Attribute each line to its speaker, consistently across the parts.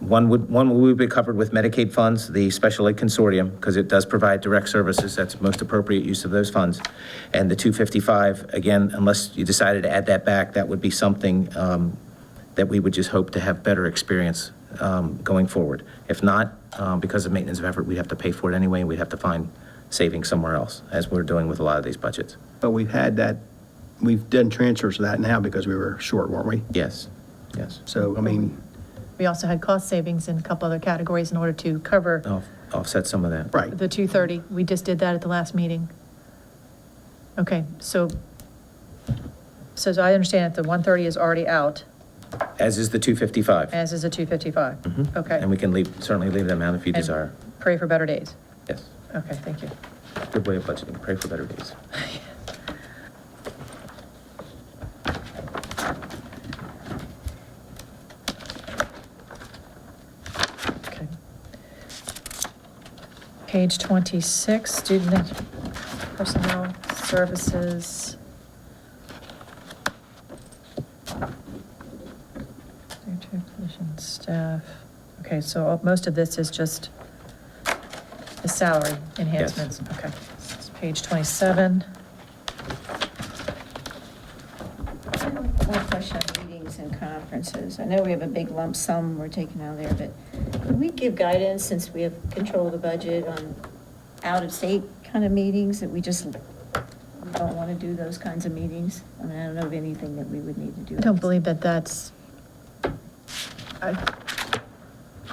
Speaker 1: One would, one would be covered with Medicaid funds, the Special Ed Consortium, because it does provide direct services, that's most appropriate use of those funds. And the 255, again, unless you decided to add that back, that would be something um, that we would just hope to have better experience um, going forward. If not, um, because of maintenance of effort, we'd have to pay for it anyway, and we'd have to find savings somewhere else, as we're doing with a lot of these budgets.
Speaker 2: But we've had that, we've done transfers to that now because we were short, weren't we?
Speaker 1: Yes, yes.
Speaker 2: So, I mean,
Speaker 3: We also had cost savings in a couple other categories in order to cover
Speaker 1: Off- Offset some of that.
Speaker 2: right.
Speaker 3: the 230. We just did that at the last meeting. Okay, so, so as I understand it, the 130 is already out,
Speaker 1: As is the 255.
Speaker 3: as is the 255. Okay.
Speaker 1: Mm-hmm. And we can leave, certainly leave them out if you
Speaker 3: And
Speaker 1: desire.
Speaker 3: Pray for better days.
Speaker 1: Yes,
Speaker 3: Okay, thank you.
Speaker 1: good way of budgeting, pray for better days.
Speaker 3: Okay. Page 26, student personnel services. Secretary position staff. Okay, so all- most of this is just the salary enhancements. Okay. This is Page 27.
Speaker 4: One question on meetings and conferences. I know we have a big lump sum we're taking out there, but can we give guidance, since we have control of the budget, on out-of-state kind of meetings, that we just we don't want to do those kinds of meetings? I mean, I don't know of anything that we would need to do.
Speaker 3: I don't believe that that's, I-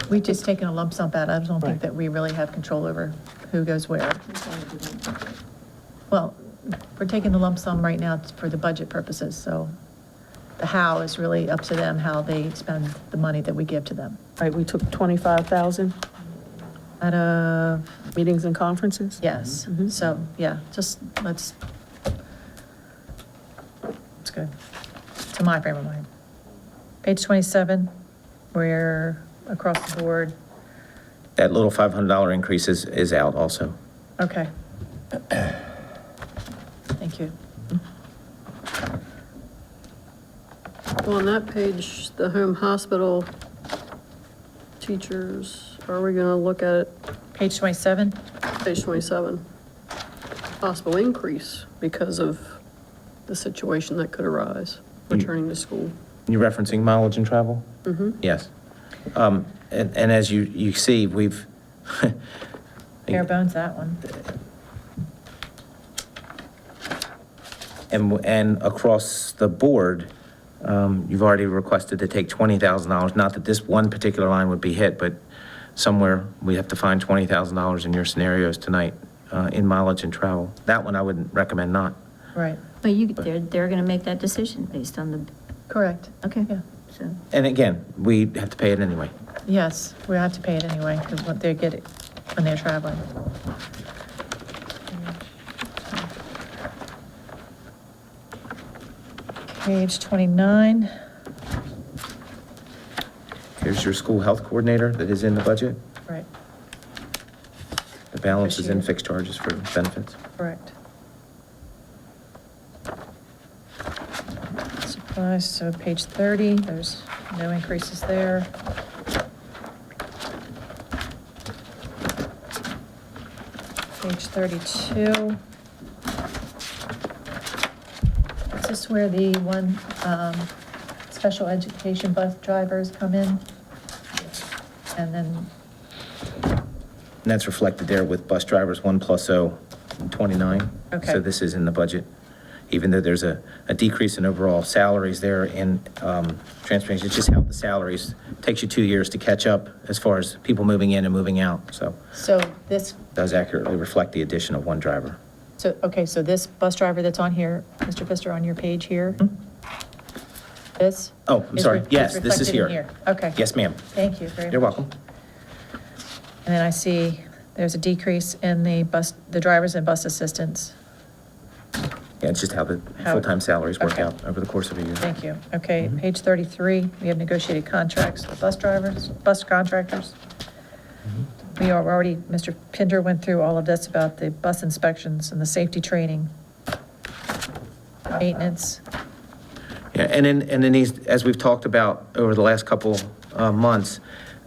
Speaker 3: we've just taken a lump sum out. I don't think
Speaker 2: Right.
Speaker 3: that we really have control over who goes where.
Speaker 4: Just wanted to do that.
Speaker 3: Well, we're taking the lump sum right now for the budget purposes, so the how is really up to them, how they spend the money that we give to them.
Speaker 5: Right, we took 25,000
Speaker 3: Out of,
Speaker 5: meetings and conferences?
Speaker 3: yes,
Speaker 5: Mhm.
Speaker 3: so, yeah, just, let's, it's good, to my frame of mind. Page 27, we're across the board,
Speaker 1: That little $500 increase is, is out also.
Speaker 3: okay. Thank you.
Speaker 6: Well, On that page, the home hospital teachers, are we gonna look at it,
Speaker 3: Page 27,
Speaker 6: page twenty-seven? Possible increase because of the situation that could arise, returning to school.
Speaker 1: You're referencing mileage and travel? Mm-hmm. Yes. Um, And, and as you, you see, we've,
Speaker 3: bare bones, that one.
Speaker 1: and, and across the board, um, you've already requested to take $20,000, not that this one particular line would be hit, but somewhere we have to find $20,000 in your scenarios tonight uh, in mileage and travel. That one I wouldn't recommend not.
Speaker 3: Right,
Speaker 4: But you, they're, they're going to make that decision based on the,
Speaker 3: correct.
Speaker 4: okay,
Speaker 3: Yeah.
Speaker 4: so.
Speaker 1: And again, we have to pay it anyway.
Speaker 3: Yes, we have to pay it anyway, because what they get it when they're traveling. Page 29,
Speaker 1: Here's your school health coordinator that is in the budget.
Speaker 3: right,
Speaker 1: The balance is in
Speaker 3: Appreciate it.
Speaker 1: fixed charges for benefits.
Speaker 3: correct. Supplies, so page 30, there's no increases there. Page 32. Is this where the one um, special education bus drivers come in? And then,
Speaker 1: And that's reflected there with bus drivers, 1 plus O, 29.
Speaker 3: Okay.
Speaker 1: So this is in the budget, even though there's a, a decrease in overall salaries there in um, transportation. It's just how the salaries, takes you two years to catch up as far as people moving in and moving out. So
Speaker 3: so this,
Speaker 1: does accurately reflect the addition of one driver.
Speaker 3: so, okay, so this bus driver that's on here, Mr. Pfister, on your page here? This?
Speaker 1: Oh, I'm
Speaker 3: is
Speaker 1: sorry.
Speaker 3: re-
Speaker 1: Yes, this is
Speaker 3: reflected
Speaker 1: here.
Speaker 3: in Okay.
Speaker 1: Yes, ma'am.
Speaker 3: Thank you very much.
Speaker 1: You're welcome.
Speaker 3: And then I see there's a decrease in the bus, the drivers and bus assistants.
Speaker 1: Yeah, it's just how the
Speaker 3: How-
Speaker 1: full-time salaries work
Speaker 3: okay.
Speaker 1: out over the course of a year.
Speaker 3: Thank you. Okay,
Speaker 1: Mm-hmm.
Speaker 3: page 33, we have negotiated contracts with bus drivers, bus contractors.
Speaker 1: Mm-hmm.
Speaker 3: We are already, Mr. Pinder went through all of this about the bus inspections and the safety training, maintenance.
Speaker 1: Yeah, and then, and then these, as we've talked about over the last couple uh, months,